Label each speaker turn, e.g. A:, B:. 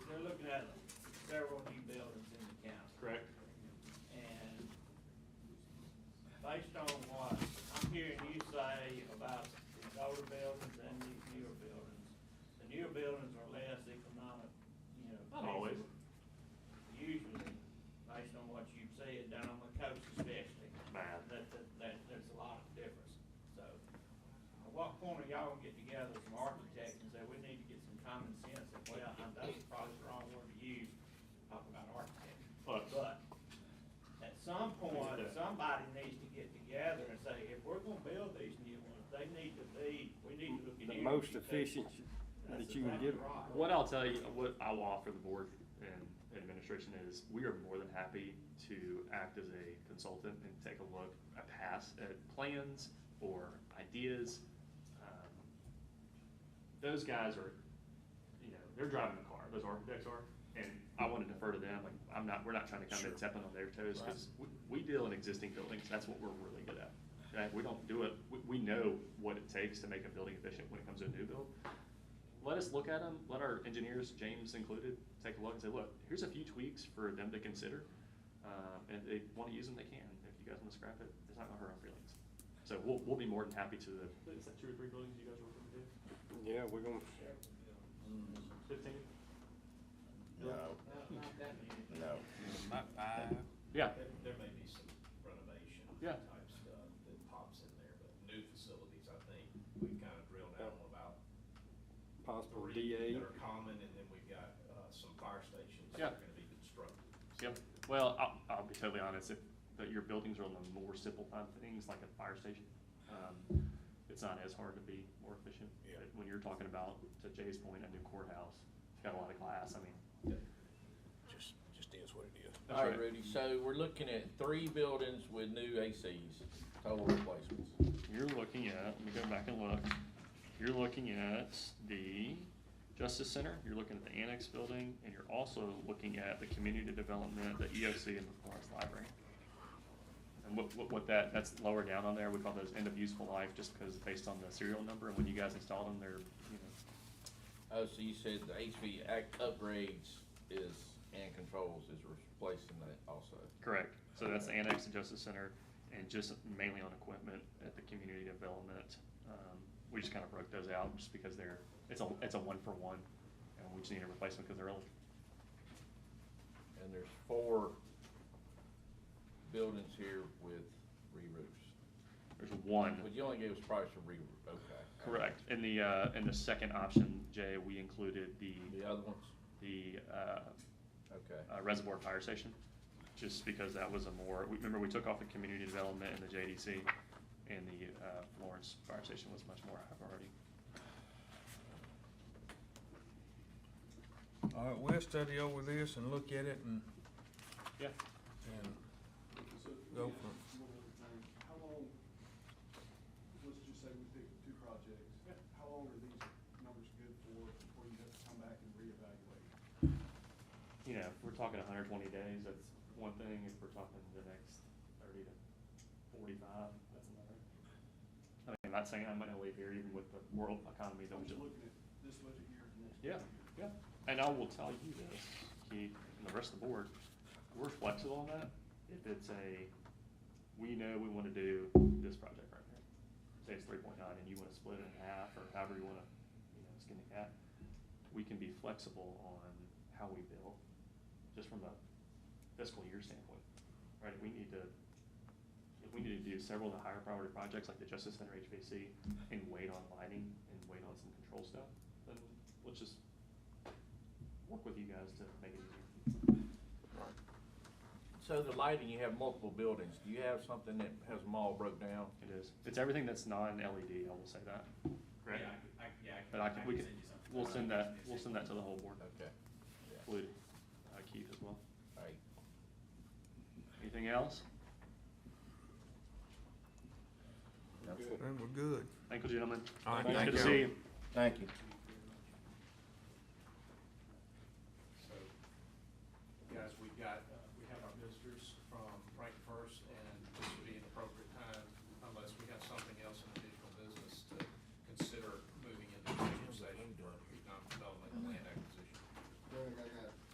A: got several new buildings in the county.
B: correct?
A: And based on what I'm hearing you say about these older buildings and these newer buildings, the newer buildings are less economic, you know.
B: Not always.
A: Usually, based on what you've said, down on the coast especially.
B: Bad.
A: That, that, that, there's a lot of difference, so. At what point are y'all gonna get together as some architects and say, we need to get some common sense? And well, I- that's probably the wrong word to use, talk about architects.
B: But-
A: But at some
B: Yeah.
A: point, somebody needs to get together and say, if we're gonna build these new ones, they need to be, we need to look at.
C: The
A: energy
C: most
A: savings.
C: efficient
A: That's
C: that you can give.
A: exactly right.
B: What I'll tell you, what I will offer the board and administration is, we are more than happy to act as a consultant and take a look, a pass at plans or ideas. Um, Those guys are, you know, they're driving the car, those architects are, and I want to defer to them, like, I'm not, we're not trying to come in stepping on their toes, because we deal in existing buildings, that's what we're really good at. Okay, we don't do it, we, we know what it takes to make a building efficient when it comes to a new build let us look at them, let our engineers, James included, take a look and say, look, here's a few tweaks for them to consider. Um, and if they want to use them, they can. If you guys want to scrap it, it's not going to hurt our feelings. So we'll, we'll be more than happy to the. Is that two or three buildings you guys were looking
C: Yeah, we're gonna,
B: to do? Fifteen?
D: No,
A: No, not that many.
D: no.
E: About five.
B: Yeah.
F: There there may be some renovation
B: Yeah.
F: type stuff that pops in there, but new facilities, I think, we've kind of drilled down on about
C: possible
F: three
C: DA.
F: that are common, and then we've got uh, some fire stations that
B: Yeah.
F: are going to be constructed.
B: Yep. Well, I'll, I'll be totally honest, if, that your buildings are on the more simple kind of things, like a fire station, um, it's not as hard to be more efficient.
D: Yeah.
B: But When you're talking about, to Jay's point, a new courthouse, it's got a lot of glass, I mean.
D: Just, just is what it is.
B: that's
G: All right,
B: right.
G: Rudy, so we're looking at three buildings with new ACs, total replacements.
B: you're looking at, let me go back and look, you're looking at the Justice Center, you're looking at the Annex Building, and you're also looking at the Community Development, the EOC, and the Florence Library. And what, what, what that, that's lower down on there, we call those end of useful life, just because based on the serial number, and when you guys install them, they're, you know,
G: Oh, so you said the HV act upgrades is, and controls is replacing that also.
B: correct. So that's the Annex and Justice Center, and just mainly on equipment at the Community Development. Um, We just kind of broke those out, just because they're, it's a, it's a one-for-one, and we just need a replacement because they're old.
G: And there's four buildings here with re-roofs.
B: There's
G: But
B: one,
G: you only gave us price for re-roof, okay.
B: Mm-hmm. correct. In the, uh, in the second option, Jay, we included
G: The
B: the,
G: other ones,
B: the uh,
G: okay.
B: uh, reservoir fire station, just because that was a more, we- remember, we took off the community development and the JDC, and the uh, Florence fire station was much more high priority.
E: All right, we'll study over this and look at it and,
B: Yeah.
E: and
H: So,
E: Go
H: yeah,
E: for it.
H: one other thing. How long, let's just say we pick two projects. How long are these numbers good for before you have to come back and reevaluate?
B: You know, if we're talking 120 days, that's one thing. If we're talking the next 30 to 45, that's another. I mean, I'm not saying I'm gonna leave here even with the world economy that
H: I'm
B: we
H: just
B: just
H: looking at this budget year and next
B: Yeah,
H: budget year.
B: yeah. And I will tell you this, Keith, and the rest of the board, we're flexible on that. If it's a, we know we want to do this project right here. Say it's three point nine and you want to split it in half or however you want to, you know, skin the cat. We can be flexible on how we bill, just from a fiscal year standpoint, right? We need to, if we need to do several of the higher priority projects like the Justice Center HVAC and wait on lighting and wait on some control stuff, then let's just work with you guys to make it easier.
G: So the lighting, you have multiple buildings. Do you have something that has them all broke down?
B: It is, it's everything that's non-LED, I will say that. Correct?
I: Yeah, I, could- I- yeah. I could-
B: But I can, we
I: could
B: can,
I: send you something.
B: we'll send that, we'll send that to the whole board,
G: Okay. Yeah.
B: including uh, Keith as well.
G: All right.
B: Anything else?
E: then we're good.
B: Thank you, gentlemen.
E: All right,
B: Good
E: thank
B: to
E: you.
B: see you.
G: Thank you.
F: uh, Um,